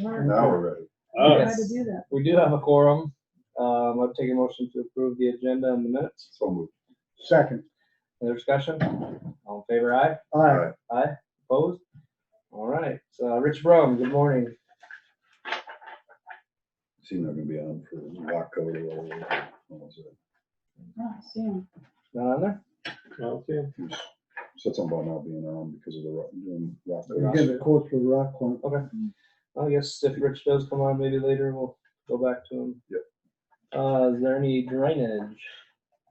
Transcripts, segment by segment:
Mark. Now we're ready. We Oh, Tried to do that. We do have a quorum. Um, I've taken motion to approve the agenda and the minutes. So moved. Second. Any discussion? All in favor, aye? Aye. Aye? Opposed? All right, so uh, Rich Brown, good morning. Seems they're gonna be on for Waco. or- Oh, Sam. Not on there? okay. Said something about not being on because of the rock- doing We get Waco. the quote for rock one. I guess if Rich does come on, maybe later we'll go back to him. Yep. Uh, is there any drainage,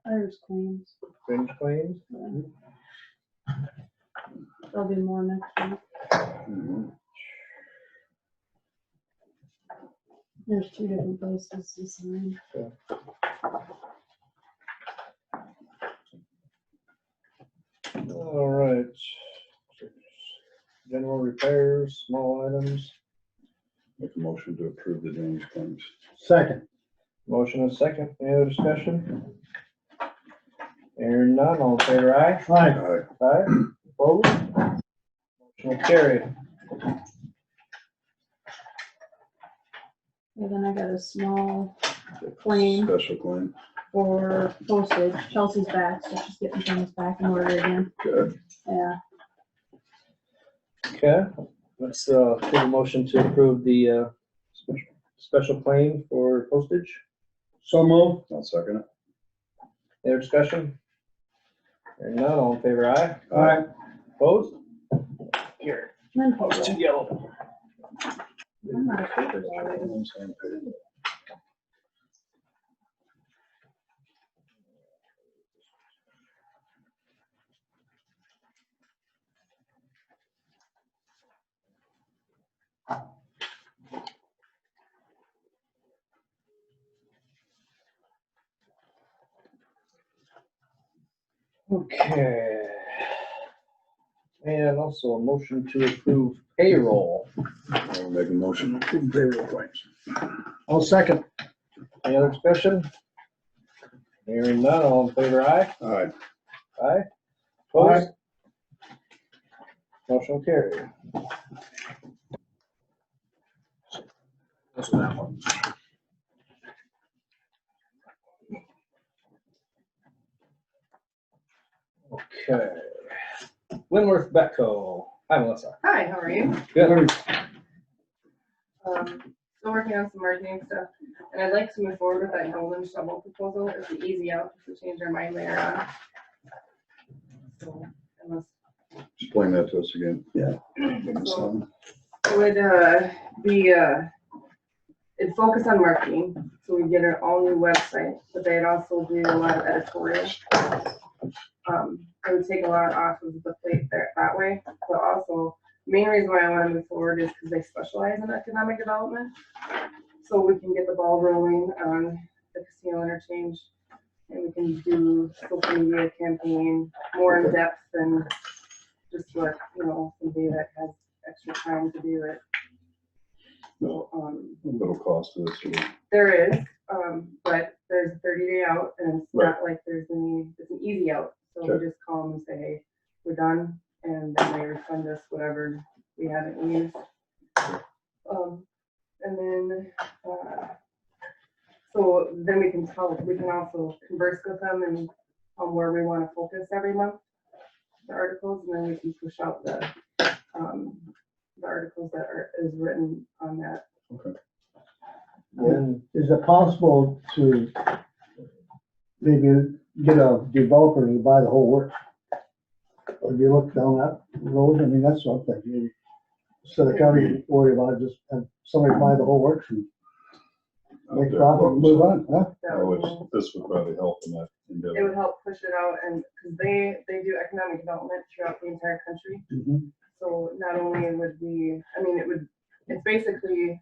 Irish claims. drainage claims? There'll be more next week. Mhm. There's two different places to sign. All right. General repairs, small items. Make a motion to approve the drainage claims. Second. Motion and second, any other discussion? Hearing none, all in favor, aye? Aye. Aye. Aye, opposed? Motion will carry. And then I got a small claim Special claim. for postage. Chelsea's back, so she's getting things back in order again. Good. Yeah, Okay, let's, uh, take a motion to approve the, uh, special- special claim for postage. So moved. I'll second it. Any other discussion? Hearing none, all in favor, aye? Aye. Opposed? Here, and then it's postage. too yellow. I'm not a paper guy, really. On the same page. Okay. And also a motion to approve payroll. I'll Make a motion to approve payroll claims. I'll second. Any other discussion? Hearing none, all in favor, aye? Aye. Aye? Opposed? Motion carried. That's that one. Okay. Winworth Betco. Hi, Melissa. Hi, how are you? Good. Um, Still working on some marketing stuff, and I'd like to move forward with that golden shovel proposal. It's an easy out if we change our mind later on. So, unless- Explain that to us again. Yeah. Well, It Would uh, be, uh, it'd focus on marketing, so we get our all new website, but they'd also do a lot of editorial. Um, It would take a lot off of the plate there that way, but also, main reason why I want to move forward is because they specialize in economic development. So we can get the ball rolling on the casino interchange, and we can do social media campaign more in depth than just what, you know, somebody that has extra time to do it. Um, little cost to this. here. there is, um, but there's a thirty day out and it's not like there's any, it's an easy out. So Okay. we just call them and say, hey, we're done, and then they refund us whatever we haven't used. Um, and then, uh, so then we can tell, we can also converse with them and on where we wanna focus every month. The articles, and then we can push out the, um, the articles that are, is written on that And Is it possible to maybe get a developer to buy the whole work? If you look down that road, I mean, that's what I'm thinking. Instead of county worry about it, just have somebody buy the whole works and Out make there, profit and move well, on, huh? that I would, would- Oh, This would probably help in that it would endeavor. help push it out and, because they, they do economic development throughout the entire country. So not only would we, I mean, it would, it's basically,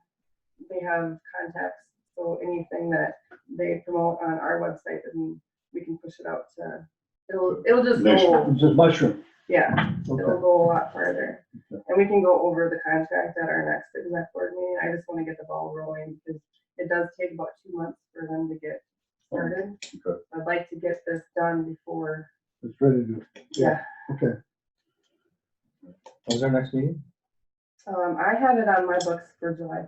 they have contacts, so anything that they promote on our website, then we can push it out to, it'll, it'll just go, Nation. It's just mushroom. yeah. It'll Okay. go a lot further. And we can go over the contract at our next exec board meeting. I just want to get the ball rolling because it does take about two months for them to get started. Okay. I'd like to get this done before, It's ready to, yeah. okay. when's our next meeting? Um, I have it on my books for July